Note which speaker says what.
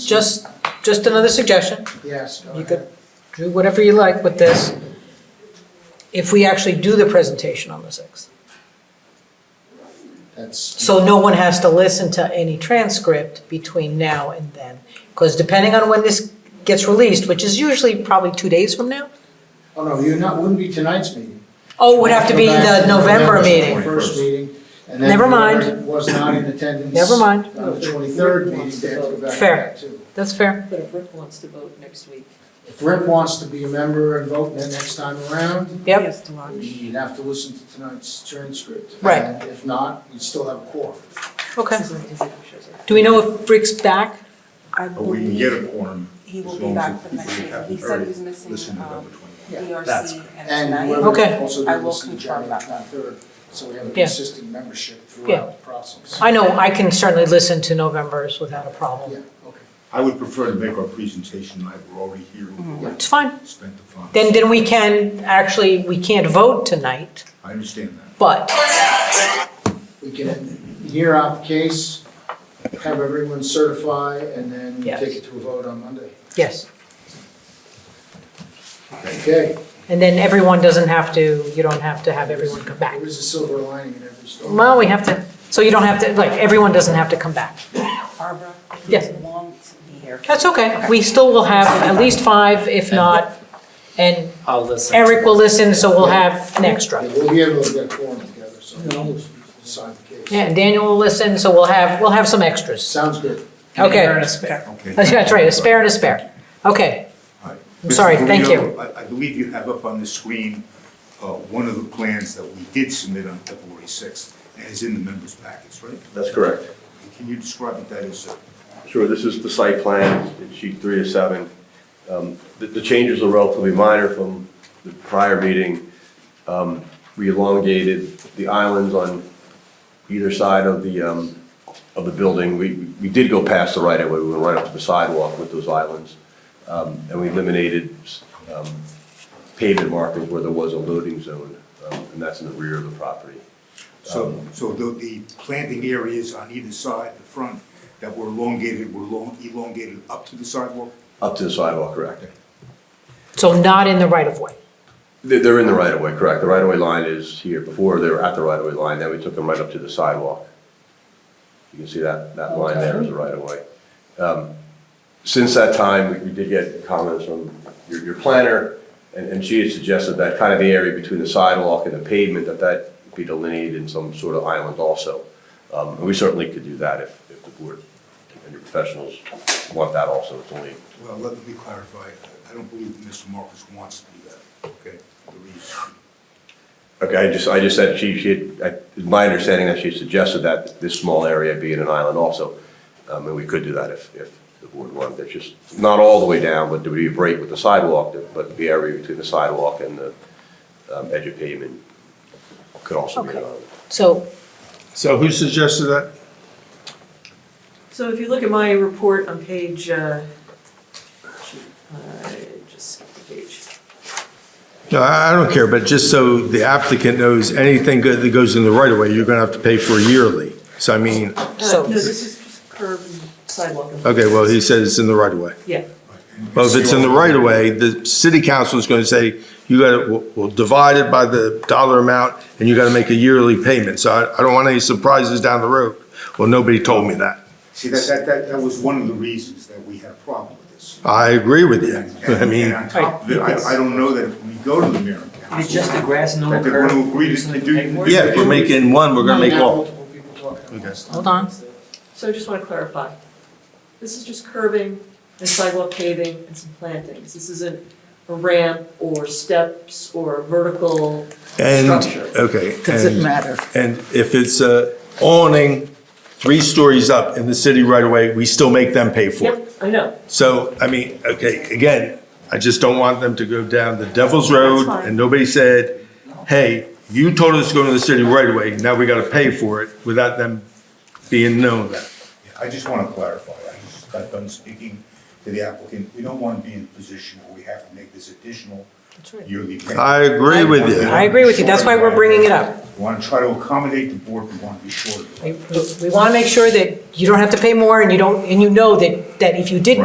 Speaker 1: just, just another suggestion,
Speaker 2: Yes, go
Speaker 1: you
Speaker 2: ahead.
Speaker 1: could do whatever you like with this, if we actually do the presentation on the 6th.
Speaker 2: That's,
Speaker 1: So no one has to listen to any transcript between now and then. Because depending on when this gets released, which is usually probably two days from now,
Speaker 2: oh no, you're not, wouldn't be tonight's meeting.
Speaker 1: oh, it would have to be
Speaker 2: Go back
Speaker 1: the
Speaker 2: to
Speaker 1: November meeting.
Speaker 2: First meeting. and then
Speaker 1: Never mind.
Speaker 2: whoever Was not in attendance.
Speaker 1: Never mind,
Speaker 2: On the twenty-third meeting, they have to go back to
Speaker 1: Fair.
Speaker 2: that too.
Speaker 1: that's fair.
Speaker 3: But if Rick wants to vote next week.
Speaker 2: If Rick wants to be a member and vote then next time around,
Speaker 3: He
Speaker 1: Yep,
Speaker 3: has to watch.
Speaker 2: you'd have to listen to tonight's transcript.
Speaker 1: Right.
Speaker 2: And If not, you still have a quorum.
Speaker 1: okay.
Speaker 3: This is an executive session.
Speaker 1: Do we know if Rick's back?
Speaker 4: I
Speaker 5: But we can get
Speaker 4: believe
Speaker 5: a quorum
Speaker 4: he will
Speaker 5: as
Speaker 4: be
Speaker 5: long
Speaker 4: back
Speaker 5: as
Speaker 4: for
Speaker 5: it-
Speaker 4: the
Speaker 5: if
Speaker 4: next
Speaker 5: we
Speaker 4: meeting.
Speaker 5: have
Speaker 4: He said he was
Speaker 5: Listen
Speaker 4: missing
Speaker 5: to
Speaker 4: um,
Speaker 5: November twenty.
Speaker 2: Yeah.
Speaker 6: That's
Speaker 4: ERC and
Speaker 2: And
Speaker 4: tonight.
Speaker 2: whoever
Speaker 1: Okay.
Speaker 2: also
Speaker 4: I
Speaker 2: didn't
Speaker 4: will
Speaker 2: listen to
Speaker 4: confirm
Speaker 2: January
Speaker 4: that one.
Speaker 2: twenty-third, so we have a
Speaker 1: Yeah.
Speaker 2: consistent membership
Speaker 1: Yeah.
Speaker 2: throughout the process.
Speaker 1: I know, I can certainly listen to November's without a problem.
Speaker 2: Yeah, okay.
Speaker 5: I would prefer to make our presentation tonight, we're already here, we
Speaker 1: It's fine.
Speaker 5: spent the funds.
Speaker 1: Mm-hmm. Then, then we can, actually, we can't vote tonight,
Speaker 5: I understand that.
Speaker 1: but,
Speaker 2: We can hear out the case, have everyone certify, and then
Speaker 1: Yes.
Speaker 2: take it to a vote on Monday.
Speaker 1: yes.
Speaker 2: Okay,
Speaker 1: And then everyone doesn't have to, you don't have to have everyone come back.
Speaker 2: there is a silver lining in every story.
Speaker 1: Well, we have to, so you don't have to, like, everyone doesn't have to come back.
Speaker 4: Barbara, he
Speaker 1: Yes.
Speaker 4: won't be here.
Speaker 1: That's okay. We still will have at least five, if not, and
Speaker 6: I'll listen.
Speaker 1: Eric will listen, so we'll have an extra.
Speaker 2: Yeah, We'll be able to get a quorum together, so we'll decide the case.
Speaker 1: Yeah, and Daniel will listen, so we'll have, we'll have some extras.
Speaker 2: Sounds good.
Speaker 1: Okay.
Speaker 6: You're in a spare.
Speaker 5: Okay.
Speaker 1: That's right, a spare and a spare. Okay,
Speaker 5: All right.
Speaker 1: I'm sorry,
Speaker 5: Mr.
Speaker 1: thank
Speaker 5: Guido, I, I believe you have up on the screen, uh, one of the plans that we did submit on February sixth, and is in the members' packets, right?
Speaker 7: That's correct.
Speaker 5: Can you describe what that is, sir?
Speaker 7: Sure, this is the site plan, it's sheet three of seven. Um, The the changes are relatively minor from the prior meeting. Um, We elongated the islands on either side of the, um, of the building. We we did go past the right-of-way, we went right up to the sidewalk with those islands. Um, And we eliminated um, pavement markings where there was a loading zone, um, and that's in the rear of the property.
Speaker 5: So, so the, the planting areas on either side, the front, that were elongated, were long, elongated up to the sidewalk?
Speaker 7: Up to the sidewalk, correct?
Speaker 1: so not in the right of way.
Speaker 7: They- They're in the right-of-way, correct. The right-of-way line is here. Before, they were at the right-of-way line, then we took them right up to the sidewalk. You can see that, that line there is the right-of-way. Um, Since that time, we- we did get comments from your, your planner, and, and she had suggested that kind of the area between the sidewalk and the pavement, that that be delineated in some sort of island also. Um, And we certainly could do that if, if the board and your professionals want that also. It's only
Speaker 5: Well, let me clarify, I don't believe that Mr. Marcus wants to do that, okay? The reason-
Speaker 7: Okay, I just, I just said she, she, had- I- it's my understanding that she suggested that this small area be in an island also. Um, and we could do that if, if the board wanted, that's just, not all the way down, but there would be a break with the sidewalk, but the area between the sidewalk and the, um, edge of pavement could also be an
Speaker 1: Okay.
Speaker 7: island.
Speaker 1: So,
Speaker 8: So who suggested that?
Speaker 3: So if you look at my report on page, uh, shoot, I just skipped the page.
Speaker 8: No, I I don't care, but just so the applicant knows, anything go- that goes in the right of way, you're going to have to pay for yearly. So I mean,
Speaker 1: So-
Speaker 3: Uh, No, this is just curb and sidewalk. and-
Speaker 8: okay, well, he said it's in the right of way.
Speaker 3: Yeah,
Speaker 8: Well, if it's in the right of way, the city council is going to say, you got to, we'll divide it by the dollar amount and you got to make a yearly payment. So I, I don't want any surprises down the road. Well, nobody told me that.
Speaker 5: See, that, that, that, that was one of the reasons that we had a problem with this.
Speaker 8: I agree with you.
Speaker 5: And-
Speaker 8: I mean,
Speaker 5: And on top of it, I, I don't know that if we go to the mayor and council.
Speaker 6: It's just the grass and no
Speaker 5: That they're gonna
Speaker 6: curb,
Speaker 5: agree
Speaker 6: reason
Speaker 5: to
Speaker 6: to
Speaker 5: do.
Speaker 6: pay for it?
Speaker 8: yeah, if we're making one, we're going to make
Speaker 2: Now
Speaker 8: all.
Speaker 2: multiple people talking at once.
Speaker 1: hold on.
Speaker 3: so I just want to clarify. This is just curbing and sidewalk paving and some plantings. This isn't a ramp or steps or vertical
Speaker 8: And,
Speaker 3: structure.
Speaker 8: okay.
Speaker 3: Doesn't
Speaker 8: and-
Speaker 3: matter.
Speaker 8: And if it's a awning, three stories up in the city right away, we still make them pay for it.
Speaker 3: Yep, I know.
Speaker 8: So, I mean, okay, again, I just don't want them to go down the devil's
Speaker 3: That's
Speaker 8: road
Speaker 3: fine.
Speaker 8: and nobody said, hey, you told us to go to the city right away, now we gotta pay for it without them being known that.
Speaker 5: I just wanna clarify, I just got done speaking to the applicant, we don't wanna be in a position where we have to make this additional yearly payment.
Speaker 8: I agree with you.
Speaker 1: I agree with you. That's why we're bringing it up.
Speaker 5: We wanna try to accommodate the board, we wanna be short of it.
Speaker 1: We, we want to make sure that you don't have to pay more and you don't, and you know that, that if you did